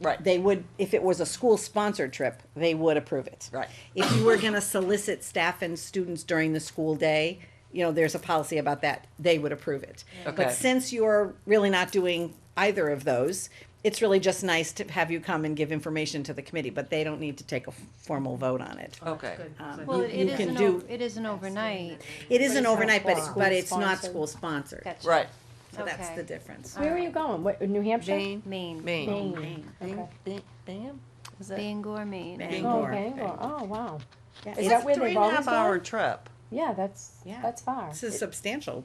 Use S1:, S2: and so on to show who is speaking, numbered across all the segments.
S1: Right.
S2: They would, if it was a school-sponsored trip, they would approve it.
S1: Right.
S2: If you were gonna solicit staff and students during the school day, you know, there's a policy about that, they would approve it.
S1: Okay.
S2: But since you're really not doing either of those, it's really just nice to have you come and give information to the committee, but they don't need to take a f- formal vote on it. Um,
S1: Okay.
S3: Well, it
S2: you can
S3: isn't,
S2: do-
S3: o- it isn't overnight.
S2: It isn't
S4: it's not
S2: overnight, but, it-
S4: school
S2: but it's not
S4: sponsored.
S2: school-sponsored.
S3: Gotcha.
S1: Right.
S2: So that's
S3: Okay.
S2: the difference.
S4: Where are you going? What, New Hampshire?
S3: Uh,
S1: Maine.
S3: Maine.
S4: Maine. Okay.
S1: Bam? Is that,
S3: Bangor, Maine.
S2: Bang-
S4: Oh,
S2: Bangor.
S4: Bangor. Oh, wow. Is
S2: It's-
S4: that where
S1: three
S4: they've
S1: and a half
S4: always
S1: hour
S4: gone?
S1: trip.
S4: Yeah, that's,
S2: Yeah.
S4: that's far.
S2: This is substantial.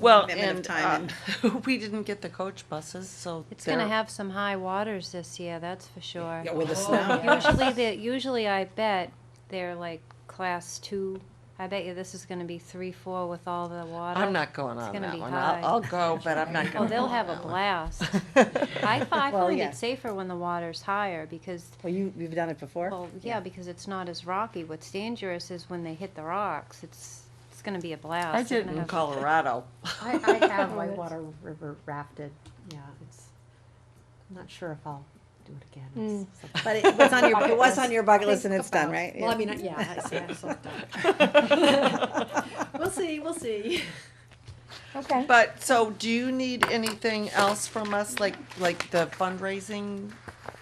S1: Well,
S2: commitment of time
S1: and, uh, we didn't get the coach buses, so.
S3: It's gonna
S1: they're-
S3: have some high waters this year, that's for sure.
S2: Yeah,
S1: Oh.
S2: with the snow.
S3: Usually, the, usually I bet they're like class two. I bet you this is gonna be three, four with all the water.
S1: I'm not going on
S3: gonna
S1: that
S3: be
S1: one.
S3: high.
S1: I'll, I'll go, but I'm not
S3: Oh,
S1: gonna.
S3: they'll
S1: go.
S3: have a blast. I, fi- I
S2: Well,
S3: find
S2: yeah.
S3: it safer when the water's higher because,
S2: Well, you, you've done it before?
S3: well, yeah, because it's not as rocky. What's dangerous is when they hit the rocks. It's, it's gonna be a blast.
S1: I
S3: They're
S1: did
S3: gonna
S1: in
S3: have-
S1: Colorado.
S5: I, I have whitewater river rafted, yeah, it's, I'm not sure if I'll do it again. It's something-
S2: But it was on your, it was on your bucket list and it's done, right?
S5: Well, I mean, yeah, it's, yeah, it's something. We'll see, we'll see.
S4: Okay.
S1: But, so do you need anything else from us, like, like the fundraising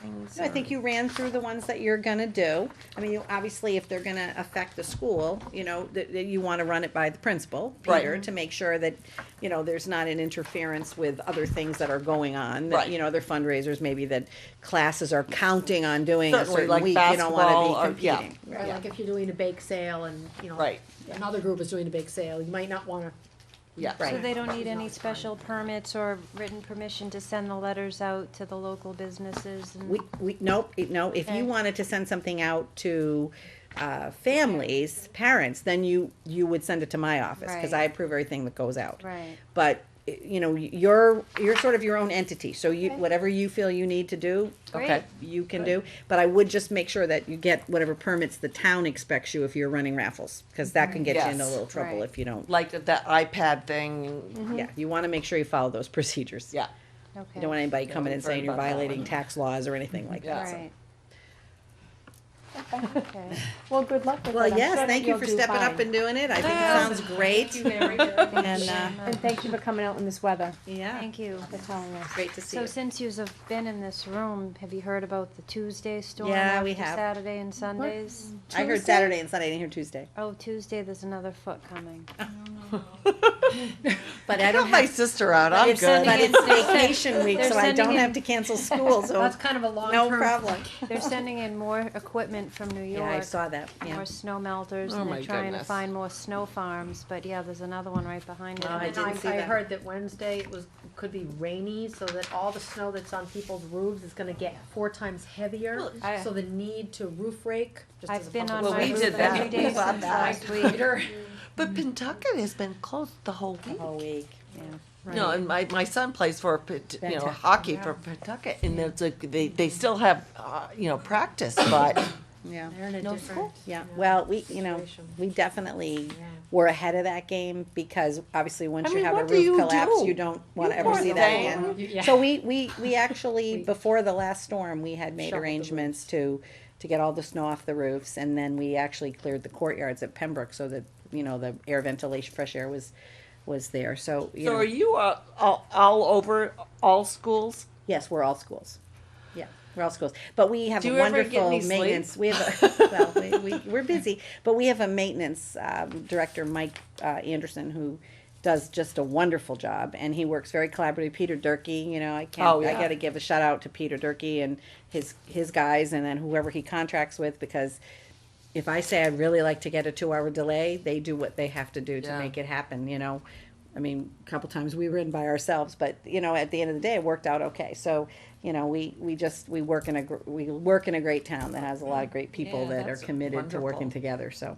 S1: things?
S2: So I think you ran through the ones that you're gonna do. I mean, you- obviously, if they're gonna affect the school, you know, that, that you wanna run it by the principal,
S1: Right.
S2: Peter, to make sure that, you know, there's not an interference with other things that are going on. that,
S1: Right.
S2: You know, other fundraisers, maybe that classes are counting on doing a
S1: Certainly,
S2: certain
S1: like
S2: week, you don't wanna
S1: basketball
S2: be
S1: or- yeah.
S2: competing.
S5: Or like if you're doing a bake sale and, you know.
S1: Right.
S5: Another group is doing a bake sale, you might not wanna,
S1: Yeah.
S3: So they don't need
S5: Right.
S3: any special permits or written permission to send the letters out to the local businesses
S2: We,
S3: and,
S2: we, nope, it- no, if
S3: Okay.
S2: you wanted to send something out to, uh, families, parents, then you, you would send it to my office, cause
S3: Right.
S2: I approve everything that goes out.
S3: right,
S2: But, y- you know, y- you're, you're sort of your own entity, so you,
S3: Okay.
S2: whatever you feel you need to do,
S1: Okay.
S3: great,
S2: you can do. But I would just make sure that you get whatever permits the town expects you if you're running raffles, cause that can get you into a
S1: Yes.
S2: little trouble
S3: Right. Mm-hmm.
S2: if you don't.
S1: Like that iPad thing,
S2: Yeah, you wanna make sure you follow those procedures.
S1: yeah.
S2: You
S3: okay.
S2: don't want anybody
S1: Yeah,
S2: coming
S1: we've
S2: and
S1: heard
S2: saying you're
S1: about that one.
S2: violating tax laws or anything like that.
S1: Yeah.
S3: Right. Okay.
S4: Well, good luck with it.
S2: Well,
S4: I'm sure
S2: yes,
S4: that
S2: thank you
S4: you'll
S2: for
S4: do
S2: stepping up
S4: fine.
S2: and doing it. I think it sounds great. And, uh,
S4: And thank you for coming out in this weather,
S2: yeah,
S3: Thank you.
S4: for telling us.
S2: great to see
S3: So
S2: you.
S3: since you've been in this room, have you heard about the Tuesday storm
S2: Yeah, we
S3: after
S2: have.
S3: Saturday and Sundays?
S2: I heard Saturday and Sunday, I didn't hear Tuesday.
S3: Oh, Tuesday, there's another foot coming.
S2: But
S1: I
S2: I
S1: got
S2: don't
S1: my
S2: have,
S1: sister out, I'm
S3: It's Sunday.
S1: good.
S2: but it's vacation week,
S3: They're
S2: so I don't
S3: sending
S2: have
S3: in-
S2: to cancel school, so
S5: that's kind of a
S2: no
S5: long-term,
S2: problem.
S3: They're sending in more equipment from New
S2: Yeah, I
S3: York,
S2: saw that, yeah.
S3: more snow melters,
S1: Oh
S3: and
S1: my
S3: they're trying to
S1: goodness.
S3: find more snow farms, but yeah, there's another one right behind it.
S2: Oh, I
S5: and
S2: didn't see
S5: I, I
S2: that.
S5: heard that Wednesday it was, could be rainy, so that all the snow that's on people's roofs is gonna get four times heavier,
S3: I-
S5: so the need to roof rake just as a
S3: I've been on
S5: public-
S1: Well,
S3: my
S1: we
S3: roof
S1: did that.
S3: every day
S1: We
S3: since
S1: bought that.
S3: last week.
S1: But Pentucket has been closed the whole week.
S2: Whole week.
S1: No, and my, my son plays for, Pet- you know,
S2: Pentucket,
S1: hockey for Pentucket, and it's like, they, they still have, uh, you know, practice, but
S2: Yeah,
S5: They're in a
S1: No
S5: different.
S2: yeah. Well, we, you know,
S5: Situation.
S2: we definitely were ahead of that game because obviously once
S1: I
S2: you
S1: mean,
S2: have a
S1: what do
S2: roof
S1: you
S2: collapse,
S1: do?
S2: you don't want to
S1: You
S2: ever
S1: poor
S2: see that
S1: thing.
S2: again.
S5: Yeah.
S2: So we, we, we actually, before the last storm, we had made
S5: Shoveled the
S2: arrangements to, to get all the snow off the roofs, and then we actually cleared the courtyards at Pembroke so that, you know, the air ventilation, fresh air was, was there, so, you
S1: So are
S2: know,
S1: you uh, all, all over all schools?
S2: yes, we're all schools. Yeah, we're all schools, but we have
S1: Do
S2: a
S1: you ever get
S2: wonderful
S1: any sleep?
S2: maintenance, we have, a- well, we- we, we're busy, but we have a maintenance, um, director, Mike, uh, Anderson, who does just a wonderful job, and he works very collaboratively, Peter Durkee, you know, I can't,
S1: Oh,
S2: I
S1: yeah.
S2: gotta to give a shout out to Peter Durkee and his his guys, and then whoever he contracts with, because if I say I'd really like to get a two hour delay, they do what they have to do to
S1: Yeah.
S2: make it happen. You know, I mean, a couple times we were in by ourselves, but you know, at the end of the day, it worked out okay. So you know, we we just we work in a gr- we work in a great town that has a lot of great people
S1: Yeah,
S2: that are
S1: that's
S2: committed to
S1: wonderful.
S2: working together. So.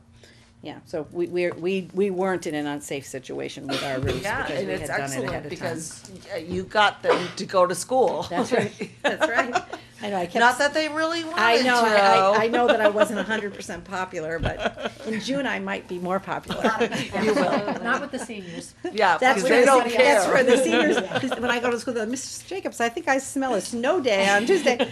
S2: Yeah, so we we we we weren't in an unsafe situation with our roofs because
S1: And
S2: we had
S1: it's
S2: done it ahead of time.
S1: excellent because uh, you got them to go to school.
S2: That's right. That's right. I know. I kept.
S1: Not that they really wanted
S2: I know. I, I, I
S1: to.
S2: know that I wasn't hundred percent popular, but in June I might be more popular.
S1: You will.
S5: Not with the seniors.
S1: Yeah,
S2: That's
S1: because
S2: what
S1: they don't
S2: That's where
S1: care.
S2: the seniors. When I go to school, they're, Mrs. Jacobs, I think I smell a snow day on Tuesday.